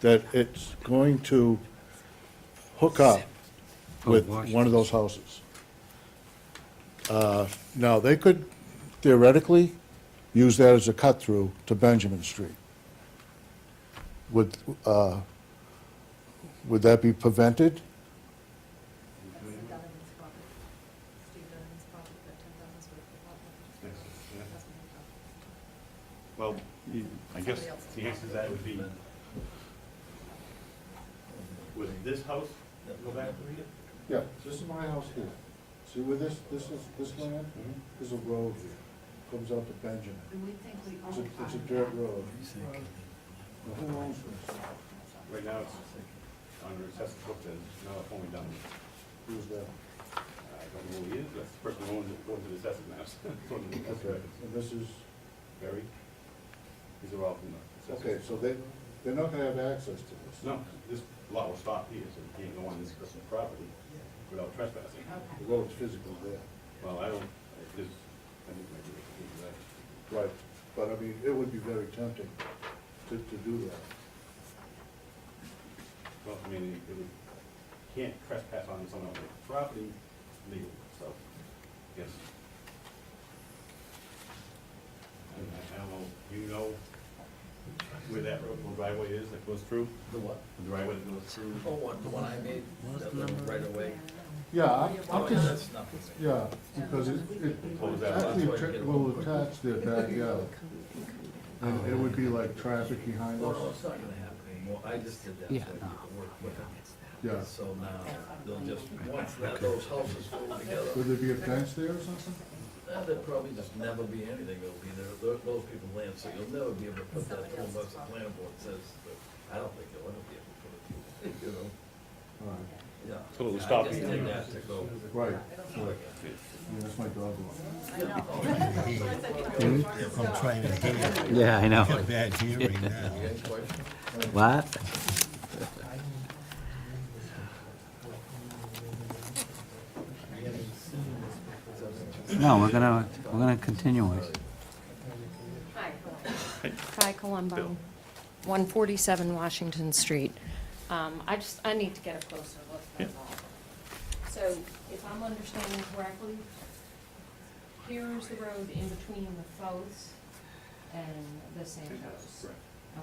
that it's going to hook up with one of those houses. Uh, Now, they could theoretically use that as a cut-through to Benjamin Street. Would, uh, would that be prevented? Donovan's property, Steve Donovan's property, that ten thousand square foot lot coverage. That's my property. Well, you- I guess the answer to that would be, would this house go back to you? Yeah, this is my house here. See where this, this is, this land, there's a road here, comes out to Benjamin. And we think we It's own a, part it's a of dirt that. road. Now, Who owns this? Right now, it's under assessment book, and now it's only done. Who's that? I don't know who he is, but the person who owns it, owns the assessment maps. It's on the assessment Okay, records. and this is, Barry, these are all from the okay, assessment. so they, they're not gonna have access to this. No, this lot will stop here, so you can't go on this person's property without trespassing. The road's physical there. Well, I don't, I just, I think maybe we can do that. Right. But I mean, it would be very tempting to, to do Well, I mean, it would, can't trespass on someone else's property legally, so, yes. I don't- I don't know, you know where that road, where driveway is that goes through? The what? The driveway that goes through? Oh, what, the one I made, that little right away? that. Yeah, I'm- Oh, I'm yeah, just, that's nothing. yeah, because it, it Close that actually lot. attra- will attach their backyard. And it would be like traffic behind No, no, us. it's not gonna happen anymore, I just did that so I Yeah. could work with it. Yeah. So now, they'll just, once that, those houses go Would together, there be a fence there or something? eh, there'll probably just never be anything that'll be there, Tho- those people land, so you'll never be able to put that home, that's the planning board says, but I don't think you'll ever be able to put it, you know? All right, Yeah. So it'll stop I just anything. did that to go. Right, right. Yeah, that's my dog. I'm trying to hear you. Yeah, I know. Got bad hearing now. Any questions? What? No, we're gonna, we're gonna continue it. Kai Colombo, 147 Washington Street. Um, I just, I need to get a closer look at all. So if I'm understanding correctly, here's the road in between the Foes and the Santos. Correct,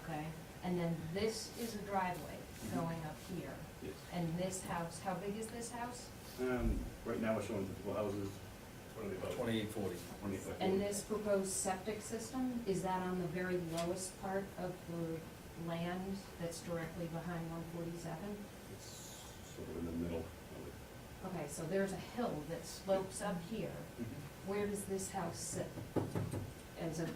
Okay? And then this is a driveway going up here. yes. And this house, how big is this house? Um, right now, we're showing typical houses, what are they about? Twenty-eight forty. Twenty, like, And this proposed septic system, is that on the very lowest part of the land that's directly behind 147? It's sort of in the middle of it. Okay, so there's a hill that slopes up here. Mm-hmm. Where does this house sit? As a,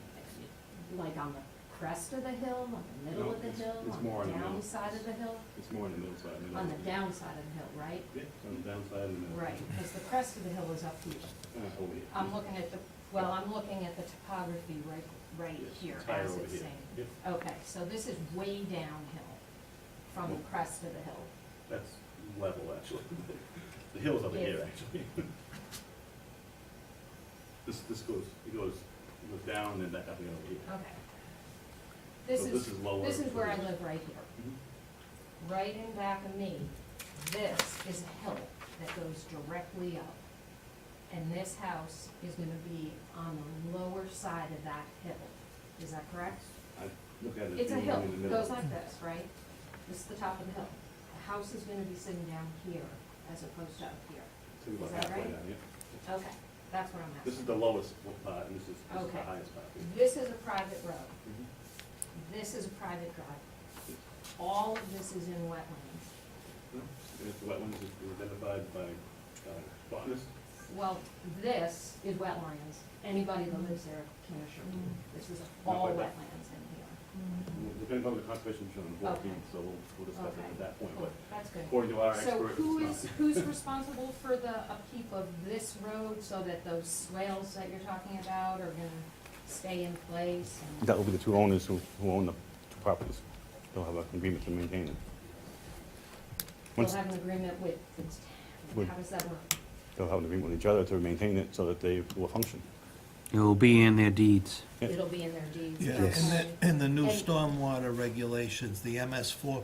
like on the crest of the hill, on the middle No, of the it's- hill, it's more on on the the middle. downside of the hill? It's more in the middle side, middle. On the downside of the hill, right? Yeah, it's on the downside and the. Right, because the crest of the hill is up here. Uh, over here. I'm looking at the, well, I'm looking at the topography right, right Yes, here it's higher as over it's here. saying. Yep. Okay, so this is way downhill from the crest of the hill. That's level, actually. The hill's up in Yes. here, actually. This, this goes, it goes, it goes down and back up again over here. Okay. This So this is, is lower this is where I than this. live right here. Mhm. right in back of me, this is a hill that goes directly up. And this house is gonna be on the lower side of that hill. Is that correct? I look at it. It's a being hill, in the middle. goes like this, right? This is the top of the hill. The house is gonna be sitting down here as opposed to up here. It's about is that halfway right? down here. Okay, that's what I'm This is asking. the lowest part, and this is, this is the Okay. Mm-hmm. highest part. This is a private road. Mhm. This is a private drive. All of this is in wetlands. No, And it's wetlands is identified by, uh, botanists. Well, this is wetlands. Anybody that lives there can assure you, this is all No, wetlands but- in Depending on the conservation shown on Okay. fourteen, so we'll, we'll here. discuss it Okay, at that point. cool, But that's good. according to our So experts, it's who not- is, who's responsible for the upkeep of this road so that those swales that you're talking about are gonna stay in place? and- That will be the two owners who, who own the two properties. They'll have an agreement to maintain it. You'll Once- have an agreement with, the t- With- how does that work? They'll have an agreement with each other to maintain it so that they will function. It will be in their deeds. Yeah. It'll be in their deeds. Yeah, and okay. the, and the new And- stormwater regulations, the MS four